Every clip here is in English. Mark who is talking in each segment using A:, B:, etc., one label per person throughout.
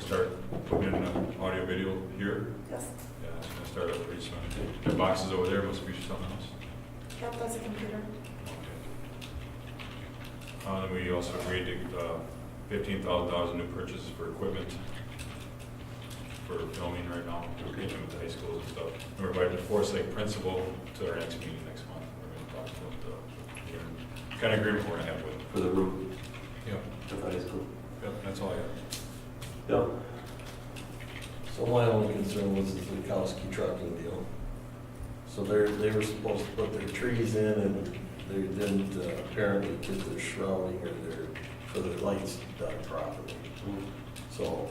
A: start putting in an audio video here.
B: Yes,
A: Yeah, it's gonna start up pretty soon. The boxes over there must be something else.
B: that does a computer.
A: Uh, then we also agreed to, uh, fifteen thousand dollars in new purchases for equipment for filming right now, we're getting with the high schools and stuff. And We're inviting the Forest Lake principal to our next meeting next month. We're gonna talk about the, kind of agreement we're gonna have with.
C: for the roof
A: Yep,
C: of the high school.
A: yep, that's all I have.
C: Yeah.
D: So my only concern was the Zukowski trucking deal. So they're, they were supposed to put their trees in and they didn't uh, apparently get their shrouding or their, for their lights done properly. So,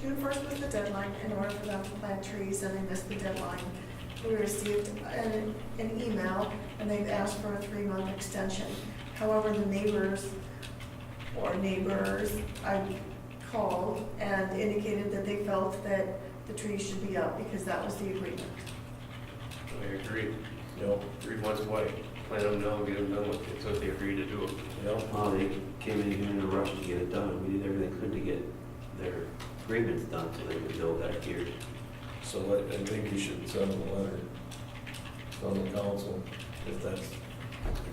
B: June first was the deadline in order for them to plant trees, and they missed the deadline. We received an, an email, and they've asked for a three-month extension. However, the neighbors or neighbors, I called and indicated that they felt that the trees should be up because that was the agreement.
E: I agree.
D: you know,
E: Read once why. Let them know, get them done with it, so if they agree to do it.
D: you know,
C: Well, they came in here in a rush to get it done, and we did everything we could to get their agreements done so they could build that here.
D: so I, I think you should send them a letter from the council if that's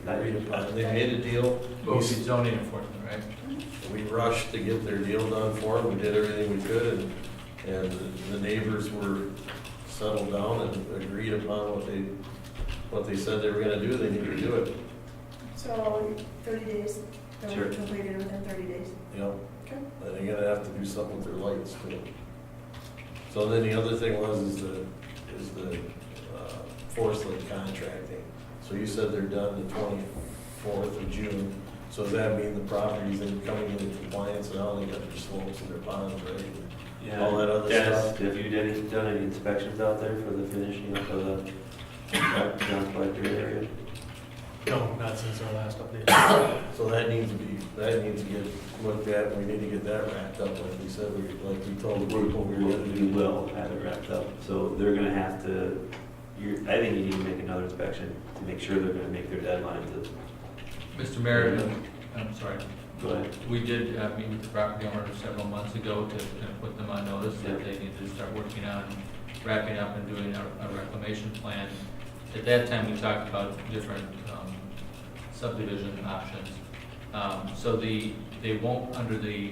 D: agreed upon. They made a deal.
F: Well, it's zoning enforcement, right?
D: We rushed to get their deal done for them, we did everything we could, and, and the neighbors were settled down and agreed upon what they, what they said they were gonna do, they need to do it,
B: So thirty days, they were
C: Sure.
B: completed within thirty days.
D: you know?
B: Okay.
D: And they're gonna have to do something with their lights too. So then the other thing was is the, is the, uh, forest lake contracting. So you said they're done the twenty-fourth of June, so does that mean the properties that are coming into compliance and all, they got their slopes and their ponds ready? All that other
C: Dennis,
D: stuff.
C: have you done any, done any inspections out there for the finishing up of the, down by your area?
F: No, not since our last update.
D: So that needs to be, that needs to get looked at, and we need to get that wrapped up, like we said, we, like we told the people we were gonna
C: We
D: do.
C: will have it wrapped up, so they're gonna have to, you're, I think you need to make another inspection to make sure they're gonna make their deadline to,
F: Mr. Mayor, um, I'm sorry,
C: go ahead.
F: we did uh, meet with the property owner several months ago to kind of put them on notice that
C: Yeah.
F: they need to start working on wrapping up and doing a a reclamation plan. At that time, we talked about different um, subdivision options. Um, So the, they won't, under the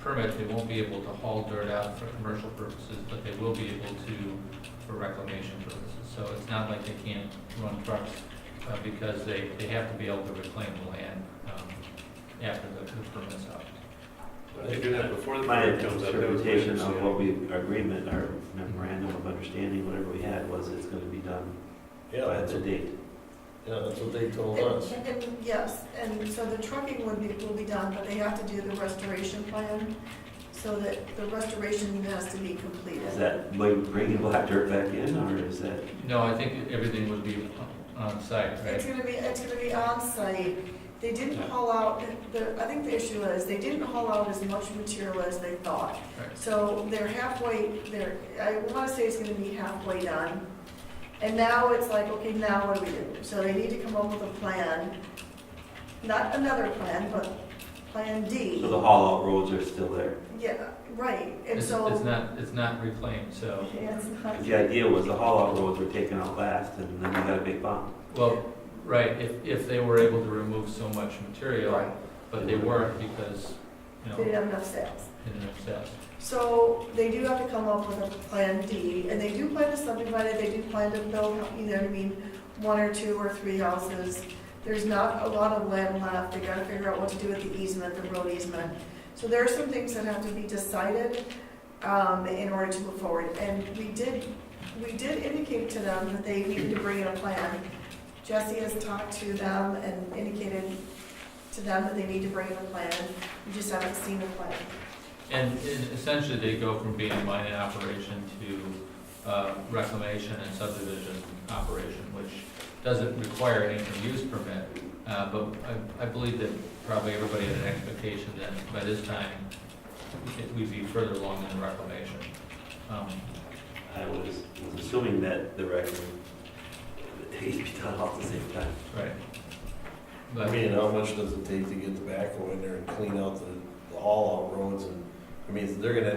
F: permit, they won't be able to haul dirt out for commercial purposes, but they will be able to for reclamation purposes. So it's not like they can't run trucks uh, because they, they have to be able to reclaim the land um, after the the permit's up.
E: If They do that before the
C: My
E: permit comes up. that was my
C: interpretation of
E: understanding.
C: what we, our agreement, our memorandum of understanding, whatever we had, was it's gonna be done
D: Yeah,
C: by
D: that's,
C: the
D: what-
C: date.
D: yeah, that's what they told us.
B: And- and- Yes, and so the trucking would be, will be done, but they have to do the restoration plan, so that the restoration has to be
C: Is
B: completed.
C: that, like, bringing black dirt back in, or is that,
F: No, I think everything would be on site,
B: It's
F: right?
B: gonna be, it's gonna be on-site. They didn't haul out, the, I think the issue is, they didn't haul out as much material as they thought.
F: Right.
B: So they're halfway, they're, I wanna say it's gonna be halfway done. And now it's like, okay, now what do we do? So they need to come up with a plan, not another plan, but Plan D.
C: so the haul out roads are still there?
B: Yeah, right, and
F: It's, it's
B: so.
F: not, it's not reclaimed, so,
B: Yeah, it's not-
C: 'Cause The idea was the haul out roads were taken out last, and then we got a big bump.
F: well, right, if, if they were able to remove so much material,
B: Right,
F: but they weren't because, you know,
B: They didn't have enough sales.
F: in themselves.
B: So they do have to come up with a plan D, and they do plan to subdivide it, they do plan to build, you know what I mean, one or two or three houses. There's not a lot of land left, they gotta figure out what to do with the easement, the road easement. So there are some things that have to be decided, um, in order to move forward. And we did, we did indicate to them that they needed to bring in a plan. Jesse has talked to them and indicated to them that they need to bring in a plan, we just haven't seen a plan.
F: And and essentially, they go from being a mining operation to uh, reclamation and subdivision operation, which doesn't require an interim use permit. Uh, But I- I believe that probably everybody had an expectation that by this time, it- we'd be further along in the reclamation. Um,
C: I was, was assuming that the record, he'd be done all at the same time.
F: Right.
D: I
F: But,
D: mean, how much does it take to get tobacco in there and clean out the, the haul out roads and, I mean, they're gonna